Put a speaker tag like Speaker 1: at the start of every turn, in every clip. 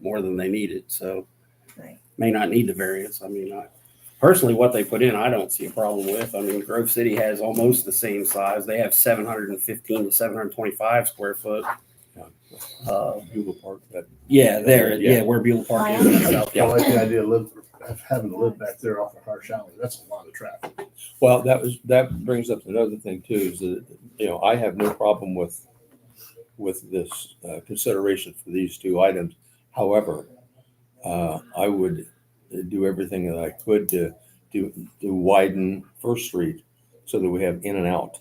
Speaker 1: more than they needed, so
Speaker 2: Right.
Speaker 1: may not need the variance. I mean, I personally, what they put in, I don't see a problem with. I mean, Grove City has almost the same size. They have seven hundred and fifteen to seven hundred and twenty-five square foot. Uh,
Speaker 3: Google Park, that
Speaker 1: yeah, there, yeah,
Speaker 3: Yeah.
Speaker 1: where Beulah Park
Speaker 2: Oh,
Speaker 1: is. South
Speaker 4: I
Speaker 1: Dallas.
Speaker 4: like the idea of live, of having to live back there off of Harsh Alley. That's a lot of traffic.
Speaker 3: Well, that was, that brings up another thing too, is that, you know, I have no problem with, with this uh, consideration for these two items. However, uh, I would do everything that I could to, to, to widen First Street so that we have in and out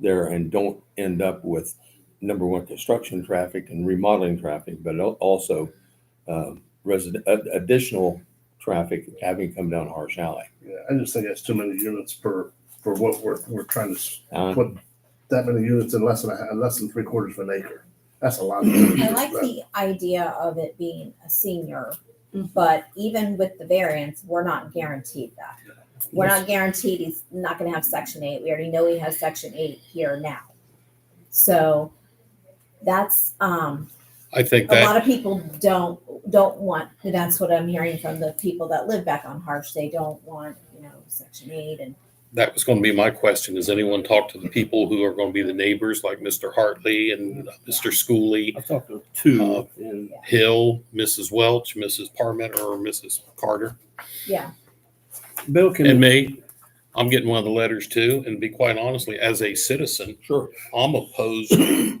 Speaker 3: there and don't end up with, number one, construction traffic and remodeling traffic, but al- also um, resident, ad- additional traffic having come down Harsh Alley.
Speaker 4: Yeah, I just think that's too many units per, for what we're, we're trying to s-
Speaker 3: Uh,
Speaker 4: put that many units in less than, a- less than three quarters of an acre. That's a lot. of units.
Speaker 2: I like the idea of it being a senior,
Speaker 5: Mm-hmm.
Speaker 2: but even with the variance, we're not guaranteed that. We're not guaranteed he's not gonna have section eight. We already know he has section eight here now. So that's, um,
Speaker 6: I think
Speaker 2: a
Speaker 6: that,
Speaker 2: lot of people don't, don't want, and that's what I'm hearing from the people that live back on Harsh. They don't want, you know, section eight and
Speaker 6: that was going to be my question. Has anyone talked to the people who are going to be the neighbors, like Mr. Hartley and Mr. Schooley,
Speaker 1: I've talked to
Speaker 6: to
Speaker 1: two Uh, and
Speaker 6: Hill, Mrs. Welch, Mrs. Parmenter, or Mrs. Carter,
Speaker 2: yeah,
Speaker 1: Bill can.
Speaker 6: and me? I'm getting one of the letters too, and to be quite honestly, as a citizen,
Speaker 3: Sure.
Speaker 6: I'm opposed.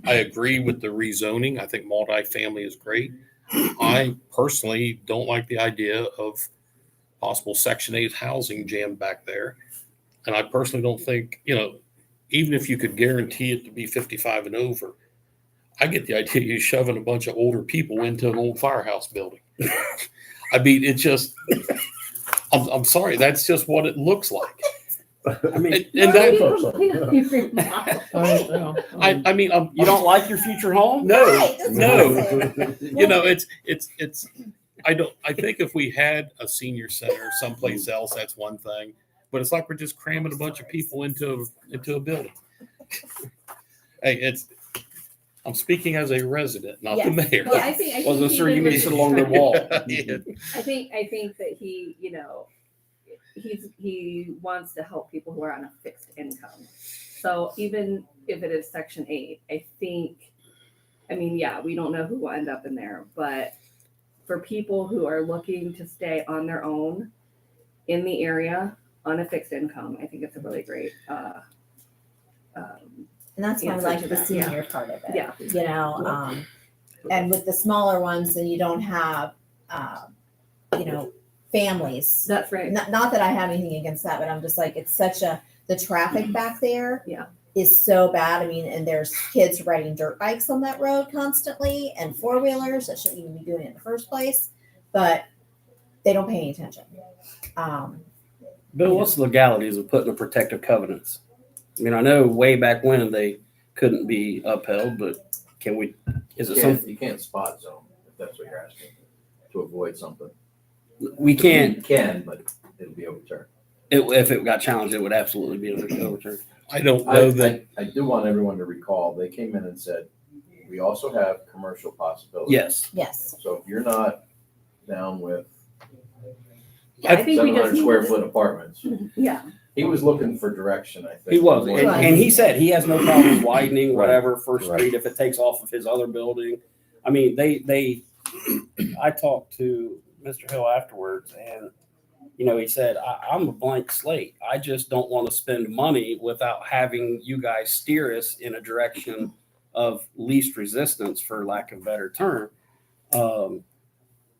Speaker 6: I agree with the rezoning. I think multifamily is great. I personally don't like the idea of possible Section 8 housing jammed back there. And I personally don't think, you know, even if you could guarantee it to be 55 and over, I get the idea you're shoving a bunch of older people into an old firehouse building. I mean, it just, I'm, I'm sorry, that's just what it looks like.
Speaker 1: I mean,
Speaker 6: And, and that, I,
Speaker 3: I,
Speaker 6: I mean, um, I'm,
Speaker 1: you don't like your future home?
Speaker 6: no,
Speaker 2: No.
Speaker 6: you know, it's, it's, it's, I don't, I think if we had a senior center someplace else, that's one thing. But it's like we're just cramming a bunch of people into, a into a building. Hey, it's, I'm speaking as a resident, not the mayor.
Speaker 5: Well, I think, I think.
Speaker 1: Wasn't
Speaker 5: he
Speaker 1: sure you
Speaker 5: did
Speaker 1: missed
Speaker 5: really-
Speaker 1: along the wall.
Speaker 6: Yeah.
Speaker 5: I think, I think that he, you know, he's, he wants to help people who are on a fixed income. So even if it is section eight, I think, I mean, yeah, we don't know who will end up in there, but for people who are looking to stay on their own in the area on a fixed income, I think it's a really great, uh, um,
Speaker 2: And that's why I
Speaker 5: Yeah,
Speaker 2: like
Speaker 5: such
Speaker 2: the
Speaker 5: that, yeah.
Speaker 2: senior part of it.
Speaker 5: Yeah.
Speaker 2: You know, um, and with the smaller ones, then you don't have, um, you know, families.
Speaker 5: that's right.
Speaker 2: Not, not that I have anything against that, but I'm just like, it's such a, the traffic back there is
Speaker 5: Mm-hmm. Yeah.
Speaker 2: so bad. I mean, and there's kids riding dirt bikes on that road constantly and four wheelers that shouldn't even be doing it in the first place, but they don't pay any attention. Um,
Speaker 1: Bill, what's the legalities of putting the protective covenants? I mean, I know way back when they couldn't be upheld, but can we, is it
Speaker 7: can't-
Speaker 1: something,
Speaker 7: You can't spot zone, if that's what you're asking, to avoid something.
Speaker 1: we can't,
Speaker 7: You can, but it'll be overturned.
Speaker 1: it- if it got challenged, it would absolutely be overturned.
Speaker 6: I don't
Speaker 7: I,
Speaker 6: know that,
Speaker 7: I, I do want everyone to recall, they came in and said, we also have commercial possibilities.
Speaker 1: Yes.
Speaker 2: yes.
Speaker 7: So if you're not down with
Speaker 5: Yeah, I think we
Speaker 7: seven
Speaker 5: just
Speaker 7: hundred
Speaker 5: need
Speaker 7: square
Speaker 5: to-
Speaker 7: foot apartments,
Speaker 5: Yeah,
Speaker 7: he was looking for direction, I think.
Speaker 1: He was, and,
Speaker 7: more
Speaker 2: Right.
Speaker 7: than-
Speaker 1: and he said he has no problem widening
Speaker 3: Right.
Speaker 1: whatever First
Speaker 3: Right.
Speaker 1: Street if it takes off of his other building. I mean, they, they, I talked to Mr. Hill afterwards and, you know, he said, I, I'm a blank slate. I just don't want to spend money without having you guys steer us in a direction of least resistance, for lack of a better term. Um,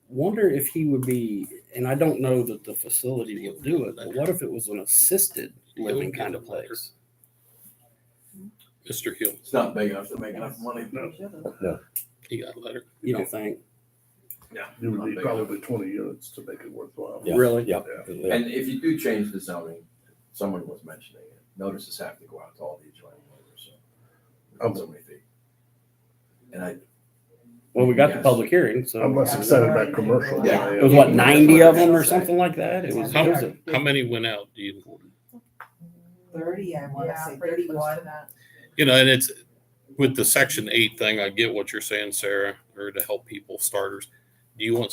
Speaker 1: wonder if he would be, and I don't know that the facility would do it, but what if it was an assisted living kind of place?
Speaker 6: Mr. Hill,
Speaker 7: It's not big enough to make enough money.
Speaker 6: he got a letter.
Speaker 1: You don't think?
Speaker 4: You would need probably twenty units to make it worthwhile.
Speaker 3: Yeah.
Speaker 1: Really?
Speaker 3: yeah, yeah.
Speaker 7: And if you do change the zoning, someone was mentioning it, notices have to go out to all the adjoining owners,
Speaker 1: Oh.
Speaker 7: so. So many feet. And I,
Speaker 1: Well, we got the
Speaker 7: Yes.
Speaker 1: public hearing,
Speaker 4: I'm
Speaker 1: so
Speaker 4: less excited about commercial. than I
Speaker 2: Yeah.
Speaker 4: am-
Speaker 1: it was what, ninety of them or something like that? It was, it was a-
Speaker 6: How many went out? Do you,
Speaker 8: thirty, I wanna say thirty-one.
Speaker 6: you know, and it's with the section eight thing, I get what you're saying, Sarah, or to help people starters. Do you want